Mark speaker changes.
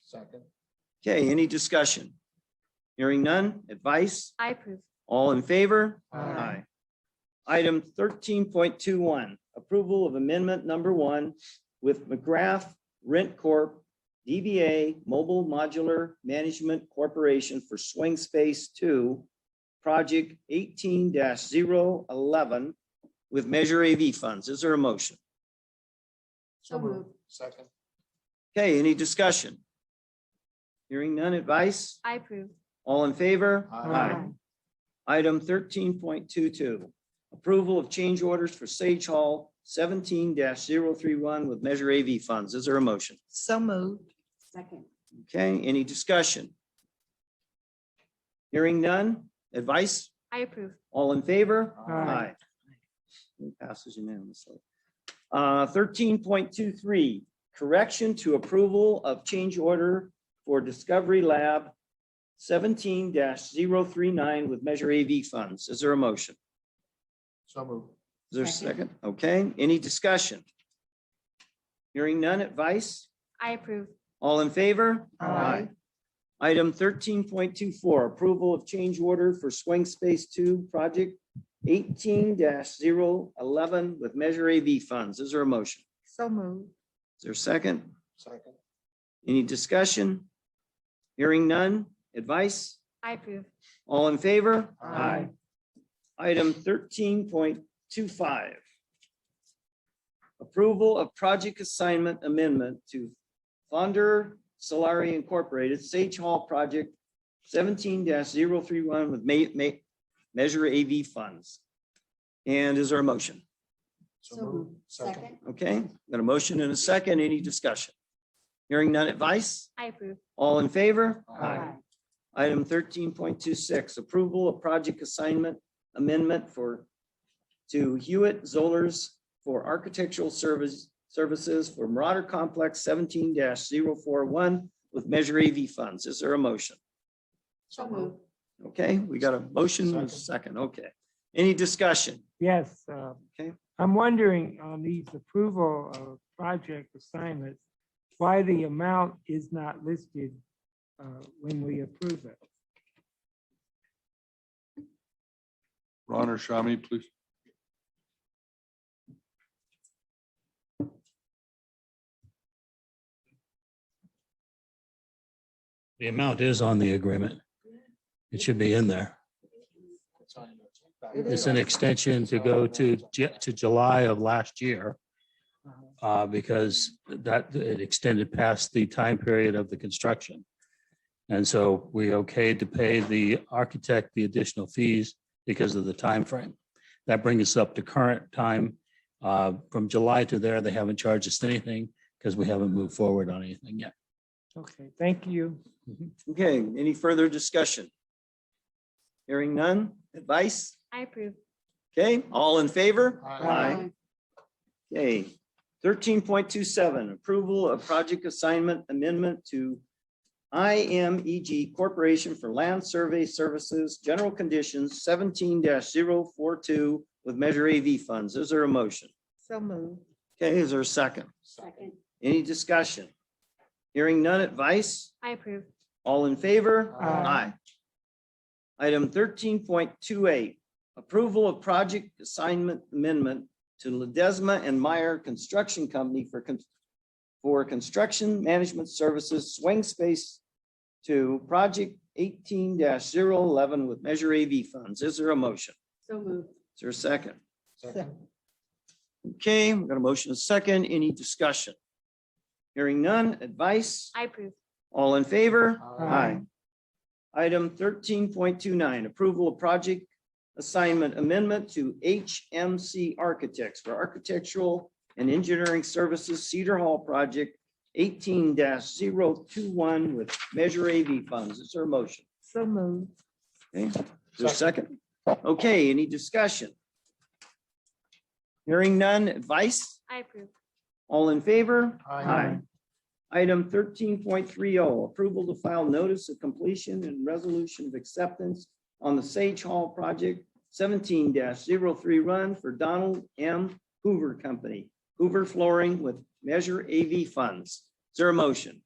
Speaker 1: Second.
Speaker 2: Okay, any discussion? Hearing none, advice,
Speaker 3: I approve.
Speaker 2: all in favor?
Speaker 1: Aye.
Speaker 2: Item thirteen point two one, approval of amendment number one with McGrath Rent Corp. DBA Mobile Modular Management Corporation for Swing Space Two, project eighteen 11 with Measure AV funds. Is there a motion?
Speaker 3: So moved.
Speaker 1: Second.
Speaker 2: Okay, any discussion? Hearing none advice?
Speaker 3: I approve.
Speaker 2: All in favor?
Speaker 1: Aye.
Speaker 2: Item thirteen point two two, approval of change orders for Sage Hall seventeen 31 with Measure AV funds. Is there a motion?
Speaker 4: So moved.
Speaker 3: Second.
Speaker 2: Okay, any discussion? Hearing none, advice?
Speaker 3: I approve.
Speaker 2: All in favor?
Speaker 1: Aye.
Speaker 2: It Passes unanimously. Uh, Thirteen point two three, correction to approval of change order for Discovery Lab seventeen 39 with Measure AV funds. Is there a motion?
Speaker 1: So moved.
Speaker 2: Is there a
Speaker 3: Second.
Speaker 2: second? Okay, any discussion? Hearing none advice?
Speaker 3: I approve.
Speaker 2: All in favor?
Speaker 4: Aye.
Speaker 2: Item thirteen point two four, approval of change order for Swing Space Two Project eighteen 11 with Measure AV funds. Is there a motion?
Speaker 4: So moved.
Speaker 2: Is there a second?
Speaker 1: Second.
Speaker 2: Any discussion? Hearing none? Advice?
Speaker 3: I approve.
Speaker 2: All in favor?
Speaker 1: Aye.
Speaker 2: Item thirteen point two five. Approval of project assignment amendment to Fonder Solari Incorporated, Sage Hall Project seventeen 31 with ma- ma- Measure AV funds. And is there a motion?
Speaker 1: So moved. Second.
Speaker 2: Okay, got a motion and a second. Any discussion? Hearing none advice?
Speaker 3: I approve.
Speaker 2: All in favor?
Speaker 1: Aye.
Speaker 2: Item thirteen point two six, approval of project assignment amendment for to Hewitt Zollers for architectural service services for Marauder Complex seventeen 41 with Measure AV funds. Is there a motion?
Speaker 3: So moved.
Speaker 2: Okay, we got a motion and a second. Okay. Any discussion?
Speaker 5: Yes, uh,
Speaker 2: Okay.
Speaker 5: I'm wondering on these approval of project assignments, why the amount is not listed uh, when we approve it.
Speaker 6: Ron or Shami, please.
Speaker 7: The amount is on the agreement. It should be in there.
Speaker 1: It's on your-
Speaker 7: It's an extension to go to, Ju- to July of last year. Uh, because that, it extended past the time period of the construction. And so we okayed to pay the architect the additional fees because of the time frame. That brings us up to current time. Uh, from July to there, they haven't charged us anything because we haven't moved forward on anything yet.
Speaker 5: Okay, thank you.
Speaker 2: Okay, any further discussion? Hearing none? Advice?
Speaker 3: I approve.
Speaker 2: Okay, all in favor?
Speaker 1: Aye.
Speaker 2: Okay, thirteen point two seven, approval of project assignment amendment to IMEG Corporation for Land Survey Services, general conditions seventeen 42 with Measure AV funds. Is there a motion?
Speaker 4: So moved.
Speaker 2: Okay, is there a second?
Speaker 1: Second.
Speaker 2: Any discussion? Hearing none advice?
Speaker 3: I approve.
Speaker 2: All in favor?
Speaker 5: Aye.
Speaker 2: Aye. Item thirteen point two eight, approval of project assignment amendment to Ledesma and Meyer Construction Company for con- for construction management services swing space to project eighteen 11 with Measure AV funds. Is there a motion?
Speaker 3: So moved.
Speaker 2: Is there a second?
Speaker 1: Second.
Speaker 2: Okay, we've got a motion, and a second. Any discussion? Hearing none, advice?
Speaker 3: I approve.
Speaker 2: All in favor?
Speaker 5: Aye.
Speaker 2: Item thirteen point two nine, approval of project assignment amendment to HMC Architects for architectural and engineering services Cedar Hall Project eighteen 21 with Measure AV funds. Is there a motion?
Speaker 4: So moved.
Speaker 2: Okay, is there a second? Okay, any discussion? Hearing none, advice?
Speaker 3: I approve.
Speaker 2: All in favor?
Speaker 1: Aye.
Speaker 2: Item thirteen point three oh, approval to file notice of completion and resolution of acceptance on the Sage Hall project seventeen 3 run for Donald M. Hoover Company, Hoover Flooring with Measure AV Funds. Is there a motion?